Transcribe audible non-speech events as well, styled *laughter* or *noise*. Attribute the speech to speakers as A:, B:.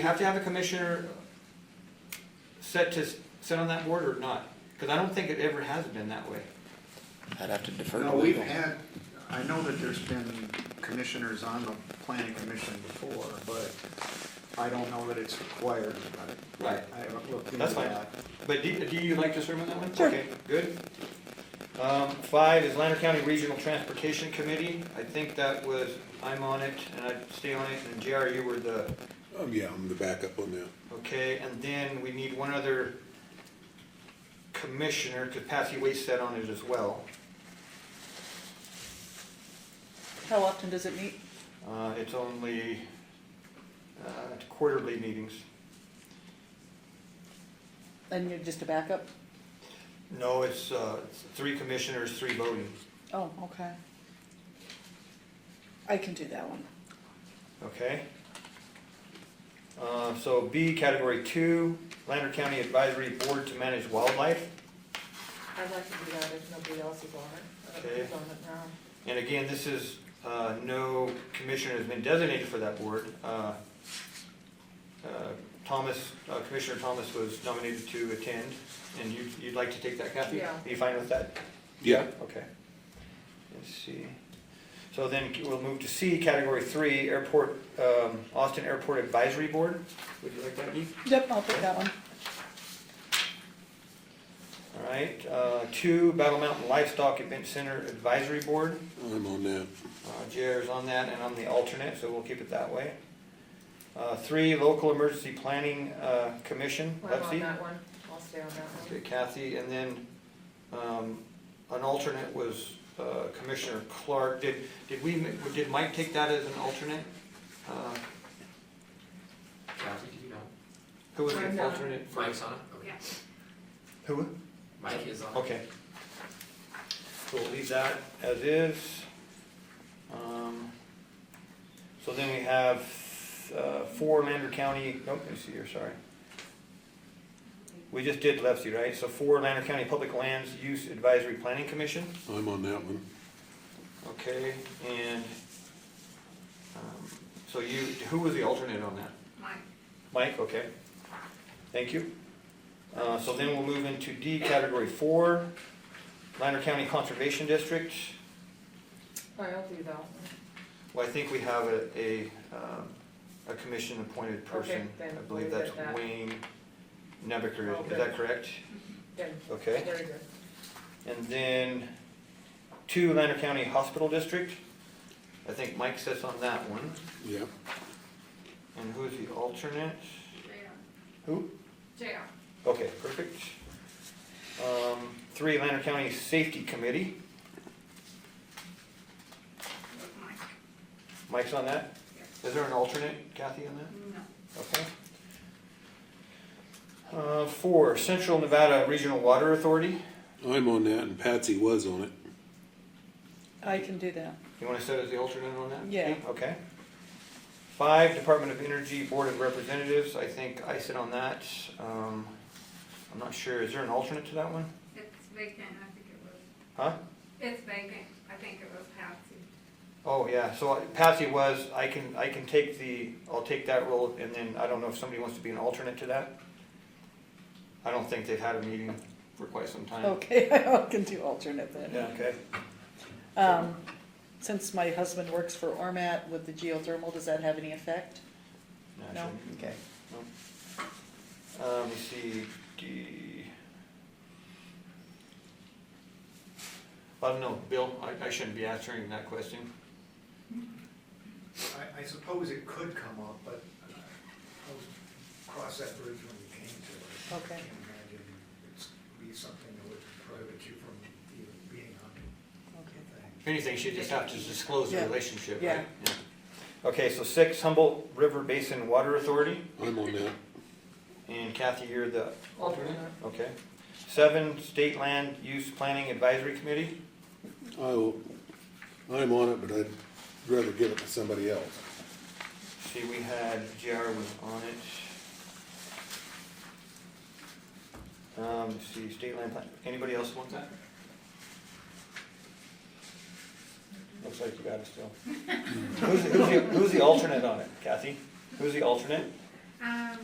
A: You have to have a commissioner set to, set on that board or not? Because I don't think it ever has been that way.
B: I'd have to defer to
C: No, we've
B: legal.
C: had, I know that there's been commissioners on the planning commission before, but I don't know that it's required, but
A: Right.
C: I haven't looked into
A: That's fine.
C: that.
A: But do, do you like to serve on that one?
B: Sure.
A: Okay, good. Um, five is Lander County Regional Transportation Committee. I think that was, I'm on it and I'd stay on it and JR, you were the,
D: Um, yeah, I'm the backup on that.
A: okay, and then we need one other commissioner, because Patsy Waite sat on it as well.
E: How often does it meet?
A: Uh, it's only, uh, quarterly meetings.
E: And you're just a backup?
A: No, it's, uh, it's three commissioners, three voting.
E: Oh, okay. I can do that one.
A: Okay. Uh, So B, category two, Lander County Advisory Board to Manage Wildlife.
F: I'd like to do that if nobody else is on it. I don't know who's
A: Okay.
F: on it now.
A: And again, this is, uh, no commissioner has been designated for that board. Uh, uh, Thomas, uh, Commissioner Thomas was nominated to attend, and you, you'd like to take that, Kathy?
F: Yeah.
A: Are you fine with that?
D: Yeah.
A: Okay. Let's see. So then we'll move to C, category three, Airport, um, Austin Airport Advisory Board. Would you like that, Dee?
E: Yep, I'll put that one.
A: All right, uh, two, Battle Mountain Livestock Event Center Advisory Board.
D: I'm on that.
A: Uh, JR's on that, and I'm the alternate, so we'll keep it that way. Uh, Three, Local Emergency Planning uh, Commission,
F: I'm on
A: Lexi.
F: that one, I'll stay on that
A: Okay,
F: one.
A: Kathy, and then um, an alternate was uh, Commissioner Clark. Did, did we, did Mike take that as an alternate? Uh,
G: Kathy, do you know?
A: Who was
F: I'm
A: the
F: not.
A: alternate? for-
G: Mike's on it? Okay.
A: Who?
G: Mike is on it?
A: Okay. So we'll leave that as is. Um, So then we have uh, four Lander County, oh, let me see here, sorry. We just did Lefsey, right? So four Lander County Public Lands Use Advisory Planning Commission,
D: I'm on that one.
A: okay, and um, so you, who was the alternate on that? Mike, okay. Thank you. Uh, So then we'll move into D, category four, Lander County Conservation District.
F: I'll do that one.
A: Well, I think we have a, a, um, a commission-appointed person.
F: Okay, then
A: I believe
F: leave it
A: that's
F: at that.
A: Wayne Nebeker, is- is that
F: Okay.
A: correct?
F: Then,
A: Okay.
F: very good.
A: And then two, Lander County Hospital District. I think Mike sits on that one.
D: Yeah.
A: And who's the alternate? Who?
F: JR.
A: Okay, perfect. Um, Three, Lander County Safety Committee. Mike's on that? Is there an alternate, Kathy, on that? Okay. Uh, Four, Central Nevada Regional Water Authority.
D: I'm on that and Patsy was on it.
E: I can do that.
A: You want to set as the alternate on that?
E: Yeah.
A: Okay. Five, Department of Energy Board of Representatives. I think I sit on that. Um, I'm not sure, is there an alternate to that one?
H: It's vacant, I think it was,
A: Huh?
H: it's vacant, I think it was Patsy.
A: Oh, yeah, so Patsy was, I can, I can take the, I'll take that role, and then I don't know if somebody wants to be an alternate to that. I don't think they've had a meeting for quite some time.
E: Okay, *laughs* I can do alternate
A: Yeah,
E: then.
A: okay.
E: Um, since my husband works for Ormat with the geothermal, does that have any effect? No?
A: Naturally.
E: Okay.
A: Uh, let me see, D. I don't know, Bill, I, I shouldn't be answering that question.
C: I, I suppose it could come up, but I'll cross that bridge when we came to it.
E: Okay.
C: I can't imagine it's be something that would prohibit you from even being on the thing.
A: If anything, she just have to disclose the
E: Yeah.
A: relationship, right?
E: Yeah.
A: Yeah. Okay, so six, Humboldt River Basin Water Authority.
D: I'm on that.
A: And Kathy, you're the alternate?
F: Alternate.
A: Okay. Seven, State Land Use Planning Advisory Committee.
D: I will, I'm on it, but I'd rather give it to somebody else.
A: See, we had, JR was on it. Um, let's see, State Land Plan, anybody else want that? Looks like you got it still. Who's, who's the, who's the alternate on it, Kathy? Who's the alternate?
H: Um,